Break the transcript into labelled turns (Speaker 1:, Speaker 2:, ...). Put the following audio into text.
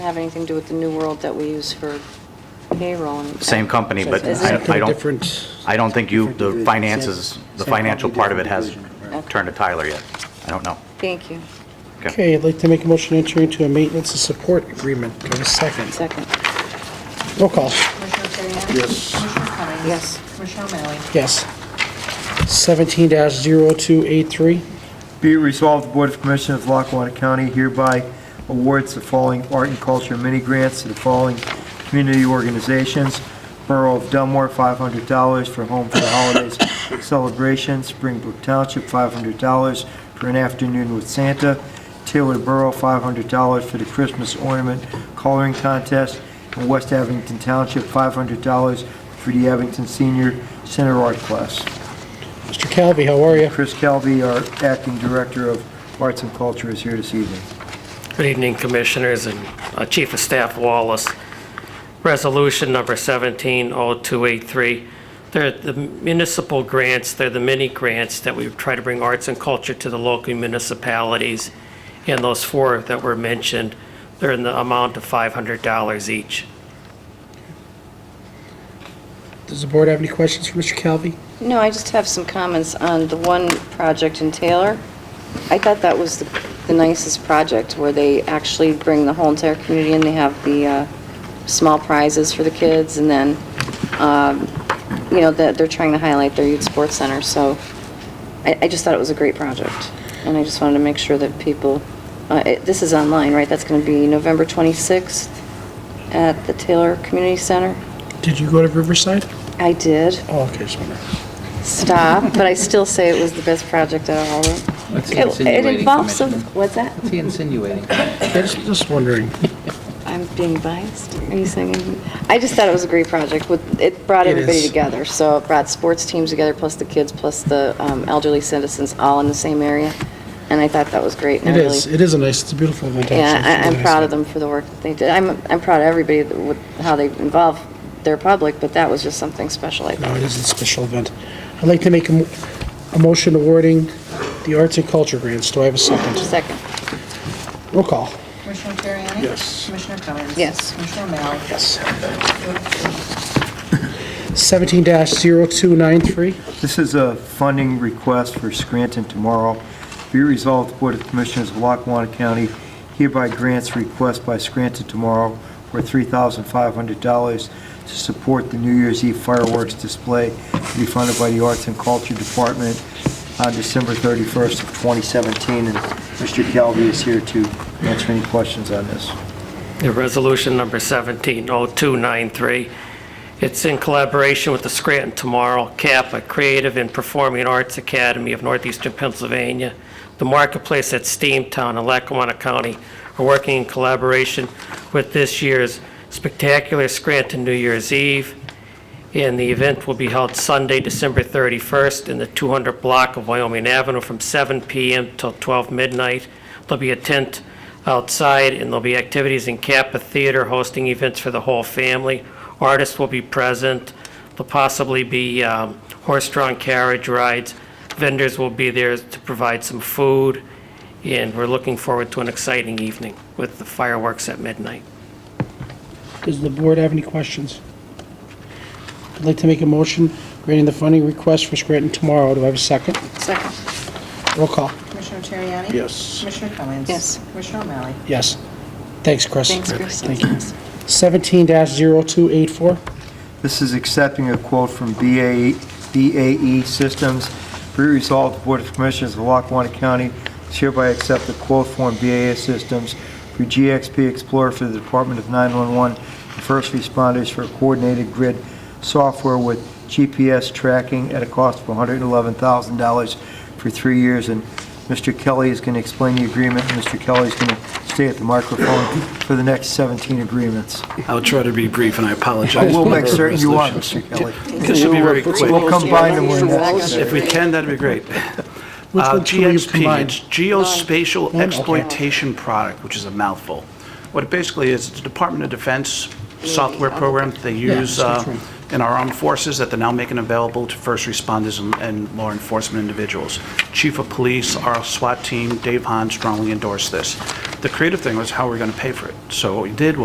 Speaker 1: have anything to do with the New World that we use for payroll. and-
Speaker 2: Same company, but
Speaker 1: Is
Speaker 2: I
Speaker 1: it-
Speaker 2: I don't,
Speaker 3: Different.
Speaker 2: I don't think you,
Speaker 3: different
Speaker 2: the
Speaker 3: division.
Speaker 2: finances,
Speaker 3: Same-
Speaker 2: the
Speaker 3: same
Speaker 2: financial
Speaker 3: company,
Speaker 2: part of it has
Speaker 3: different division,
Speaker 1: right.
Speaker 2: turned to Tyler yet. I don't know.
Speaker 1: Thank you.
Speaker 3: Okay, I'd like to make a motion to enter into a maintenance and support agreement. Give a second.
Speaker 1: Second.
Speaker 3: Roll call.
Speaker 4: Commissioner Terriani? Yes. Commissioner Cummings?
Speaker 1: Yes.
Speaker 3: Yes.
Speaker 4: Commissioner O'Malley?
Speaker 3: 17-0283.
Speaker 5: Be it resolved, the Board of Commissioners of Lackawanna County hereby awards the following art and culture mini grants to the following community organizations. Borough of Dunmore, $500 for Home for the Holidays celebration. Springbrook Township, $500 for an afternoon with Santa. Taylor Borough, $500 for the Christmas ornament coloring contest. And West Abington Township, $500 for the Abington Senior Center Art Class.
Speaker 3: Mr. Calvi, how are you?
Speaker 5: Chris Calvi, our acting director of Arts and Culture, is here this evening.
Speaker 6: Good evening, Commissioners and uh, Chief of Staff Wallace. Resolution number 170283. They're the municipal grants, they're the mini grants that we try to bring arts and culture to the local municipalities. And those four that were mentioned, they're in the amount of $500 each.
Speaker 3: Does the board have any questions for Mr. Calvi?
Speaker 1: No, I just have some comments on the one project in Taylor. I thought that was the the nicest project, where they actually bring the whole entire community in. They have the uh, small prizes for the kids, and then, um, you know, that they're trying to highlight their youth sports center. So I I just thought it was a great project, and I just wanted to make sure that people, uh, it- this is online, right? That's going to be November 26th at the Taylor Community Center.
Speaker 3: Did you go to Riverside?
Speaker 1: I did
Speaker 3: Oh, okay, just wondering.
Speaker 1: stop, but I still say it was the best project out of all of them.
Speaker 7: What's he
Speaker 1: It- It
Speaker 7: insinuating,
Speaker 1: involves, some-
Speaker 7: Commissioner?
Speaker 1: what's that?
Speaker 7: What's he insinuating?
Speaker 3: Yeah, Just just wondering.
Speaker 1: I'm being biased. Are you saying, I just thought it was a great project. with- It brought
Speaker 3: It
Speaker 1: everybody
Speaker 3: is.
Speaker 1: together. So it brought sports teams together, plus the kids, plus the um, elderly citizens, all in the same area. And I thought that was great. and I
Speaker 3: It
Speaker 1: really-
Speaker 3: is, it is a nice, it's a beautiful event.
Speaker 1: Yeah,
Speaker 3: actually.
Speaker 1: I- I'm
Speaker 3: Really
Speaker 1: proud of
Speaker 3: nice.
Speaker 1: them for the work that they did. I'm, I'm proud of everybody that- with how they involve their public, but that was just something special, I
Speaker 3: No,
Speaker 1: thought.
Speaker 3: Oh, it is a special event. I'd like to make a mo- a motion awarding the arts and culture grants. Do I have a second?
Speaker 1: Second.
Speaker 3: Roll call.
Speaker 4: Commissioner Terriani? Yes. Commissioner Cummings?
Speaker 1: Yes.
Speaker 4: Commissioner O'Malley?
Speaker 3: Yes. 17-0293.
Speaker 5: This is a funding request for Scranton Tomorrow. Be it resolved, the Board of Commissioners of Lackawanna County hereby grants request by Scranton Tomorrow for $3,500 to support the New Year's Eve fireworks display to be funded by the Arts and Culture Department on December 31st of 2017. And Mr. Calvi is here to answer any questions on this.
Speaker 6: Yeah, Resolution number 170293. It's in collaboration with the Scranton Tomorrow, CAPA, Creative and Performing Arts Academy of Northeastern Pennsylvania, the Marketplace at Steamtown in Lackawanna County are working in collaboration with this year's spectacular Scranton New Year's Eve, and the event will be held Sunday, December 31st, in the 200 block of Wyoming Avenue from 7 PM till 12 midnight. There'll be a tent outside, and there'll be activities in Kappa Theater hosting events for the whole family. Artists will be present. There'll possibly be um, horse-drawn carriage rides. Vendors will be there to provide some food, and we're looking forward to an exciting evening with the fireworks at midnight.
Speaker 3: Does the board have any questions? I'd like to make a motion granting the funding request for Scranton tomorrow. Do I have a second?
Speaker 1: Second.
Speaker 3: Roll call.
Speaker 4: Commissioner Terriani?
Speaker 3: Yes.
Speaker 4: Commissioner Cummings?
Speaker 1: Yes.
Speaker 4: Commissioner O'Malley?
Speaker 3: Yes. Thanks, Chris.
Speaker 1: Thanks, Chris.
Speaker 3: Thank you. 17-0284.
Speaker 5: This is accepting a E, quote from BAE BAE E Systems. Be resolved, the Board of Commissioners of Lackawanna County does hereby accept the quote from BAE Systems for GXP Explorer for the Department of 911 and First Responders for coordinated grid software with GPS tracking at a cost of $111,000 for three years. And Mr. Kelly is going to explain the agreement, and Mr. Kelly is going to stay at the microphone for the next 17 agreements.
Speaker 8: I'll try to be brief, and I
Speaker 5: I
Speaker 8: apologize.
Speaker 5: will
Speaker 8: for
Speaker 5: make
Speaker 8: the
Speaker 5: certain you are,
Speaker 8: resolution.
Speaker 5: Mr. Kelly.
Speaker 8: This should be very quick.
Speaker 5: We'll combine them when necessary.
Speaker 8: If we can, that'd be great.
Speaker 3: Which
Speaker 8: Uh,
Speaker 3: ones can we
Speaker 8: GXP,
Speaker 3: combine?
Speaker 8: it's Geospatial
Speaker 3: okay.
Speaker 8: Exploitation Product, which is a mouthful. What it basically is, it's a Department of Defense software program that they use
Speaker 3: so
Speaker 8: uh,
Speaker 3: true.
Speaker 8: in our armed forces that they're now making available to first responders and- and law enforcement individuals. Chief of Police, our SWAT team, Dave Hahn strongly endorsed this. The creative thing was how we're going to pay for it. So what we did was